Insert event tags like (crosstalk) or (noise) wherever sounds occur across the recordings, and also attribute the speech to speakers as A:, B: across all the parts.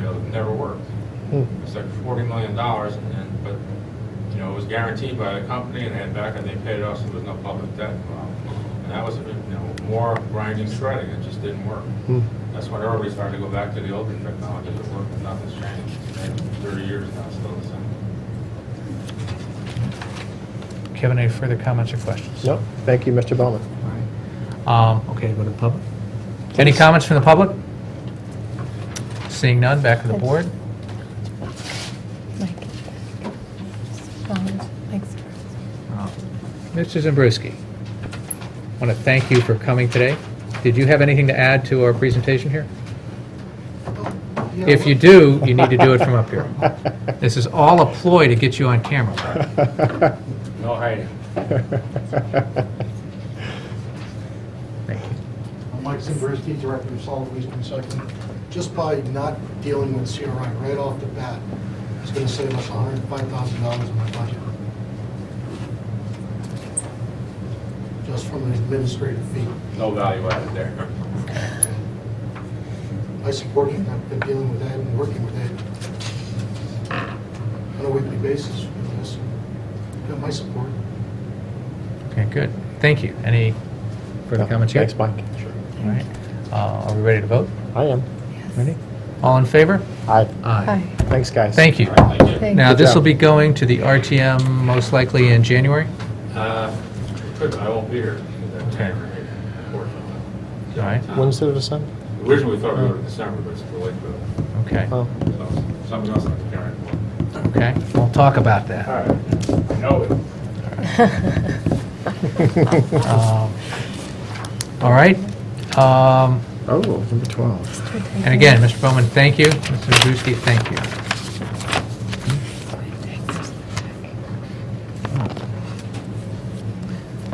A: know, never worked.
B: Hmm.
A: It's like forty million dollars and, but, you know, it was guaranteed by the company and they had back and they paid it off, so there was no public debt involved. And that was, you know, more grinding, shredding, it just didn't work.
B: Hmm.
A: That's when everybody started to go back to the older technologies that worked, and nothing's changed. And Thirty years now, it's uh, still the same.
C: Kevin, any further comments or questions?
B: No, thank you, Mr. Bowman.
C: Um, Okay, go to the public. Any comments from the public? Seeing none, back to the board.
D: Mike. Um, Thanks.
C: Uh, Mr. Zabriskie, I want to thank you for coming today. Did you have anything to add to our presentation here? If you do, you need to do it from
B: (laughs)
C: up here. This is all a ploy to get you on camera.
A: (laughs) No
C: (laughs)
A: hiding.
C: Thank you.
E: I'm Mike Zimbriski, Director of Solid Waste Recycling. Just by not dealing with CRI right off the bat, it's going to save us $105,000 in my budget. Just from an administrative fee.
A: No value added there. (laughs)
E: I support it, and I've been dealing with that and working with that on a weekly basis with this. Got my support.
C: Okay, good. Thank you. Any further comments here?
B: Thanks, Mike.
C: All right. Uh, Are we ready to vote?
B: I am.
C: Ready? All in favor?
B: Aye.
C: (laughs) Aye.
D: Hi.
B: Thanks, guys.
C: Thank you.
A: Thank you.
D: Thank
C: Now,
D: you.
B: Good
C: this will
B: job.
C: be going to the RTM most likely in January?
A: Uh, Good, I won't be here.
C: Okay.
A: Unfortunately. Uh,
C: All right,
B: When's the December?
A: Originally, we thought we were in December, but it's too late for that.
C: okay,
B: Oh,
A: So, Something else I'm preparing for.
C: okay. We'll talk about that.
A: All right, I know it.
C: (laughs) Um, All right. Um,
B: oh, number
C: (laughs)
B: 12.
C: And again, Mr. Bowman, thank you. Mr. Zabruski, thank you.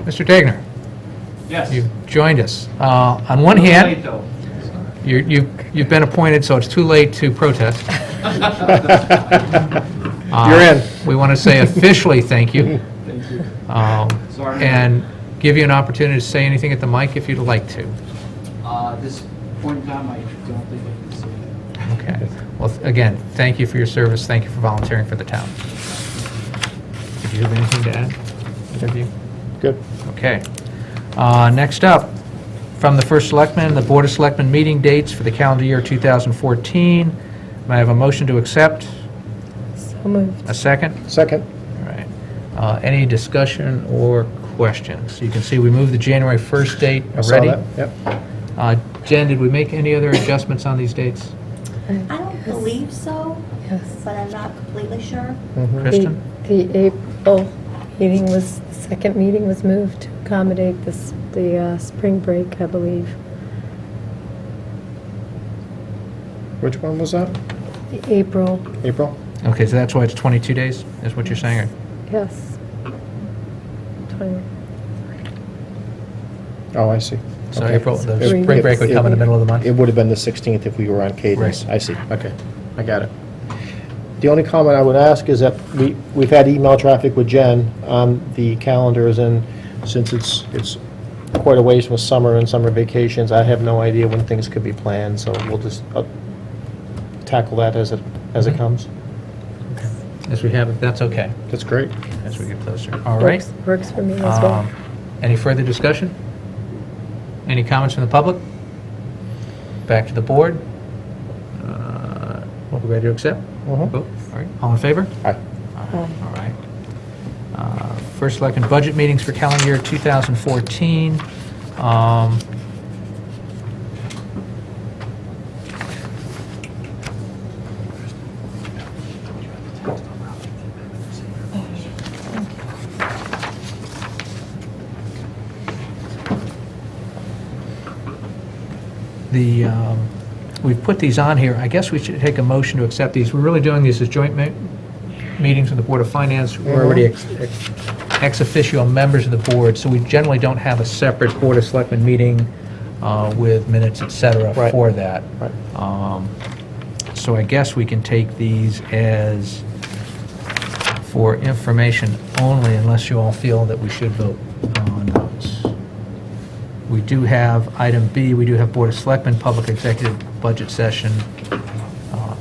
C: Mr. Dagner,
F: Yes.
C: you've joined us. Uh, On one hand, you- you- you've been appointed, so it's too late to protest. Uh,
B: You're in.
C: We want to say officially thank you.
F: (laughs) Thank you.
C: um,
F: Sorry.
C: And give you an opportunity to say anything at the mic if you'd like to.
F: Uh, this point in time, I don't think I can say that.
C: Okay. Well, th- again, thank you for your service. Thank you for volunteering for the town. Did you have anything to add? Either of you?
B: (laughs) Good.
C: Okay. Uh, Next up, from the First Selectman, the Board of Selectmen meeting dates for the calendar year 2014. May I have a motion to accept?
D: So moved.
C: A second?
B: Second.
C: All right. Uh, Any discussion or questions? You can see we moved the January 1st date
B: I saw
C: already.
B: that. Yep.
C: Uh, Jen, did we make any other adjustments on these dates?
G: I don't believe so,
D: Yes.
G: but I'm not completely sure.
B: Mhm.
D: The
C: Kristen?
D: the April meeting was, the second meeting was moved to accommodate this, the uh, spring break, I believe.
B: Which one was that?
D: The April,
B: April?
C: Okay, so that's why it's 22 days, is what you're saying? or-
D: yes. Twenty-
B: Oh, I see.
C: So
B: Okay.
C: April, the
B: It-
C: spring break would
B: it-
C: come in the middle of the month?
B: It would have been the 16th if we were on cadence.
C: Right.
B: I see. Okay. I got it. The only comment I would ask is that we, we've had email traffic with Jen on the calendars, and since it's, it's quite a ways from summer and summer vacations, I have no idea when things could be planned, so we'll just uh, tackle that as it, as it comes.
C: As we have, it, that's okay,
B: That's great.
C: as we get closer. All right.
D: works- Works for me as well.
C: Um, Any further discussion? Any comments from the public? Back to the board. Uh, What, we ready to accept?
B: Mhm.
C: Vote. All right, all in favor?
B: Aye.
C: All right. Uh, First Selectmen budget meetings for calendar year 2014. Um, The, um, we've put these on here, I guess we should take a motion to accept these. We're really doing these as joint ma- meetings with the Board of Finance. We're already ex- ex ex officio members of the board, so we generally don't have a separate Board of Selectmen meeting uh, with minutes, et cetera,
B: Right.
C: for that.
B: Right.
C: Um, So I guess we can take these as for information only, unless you all feel that we should vote on those. We do have item B, we do have Board of Selectmen Public Executive Budget Session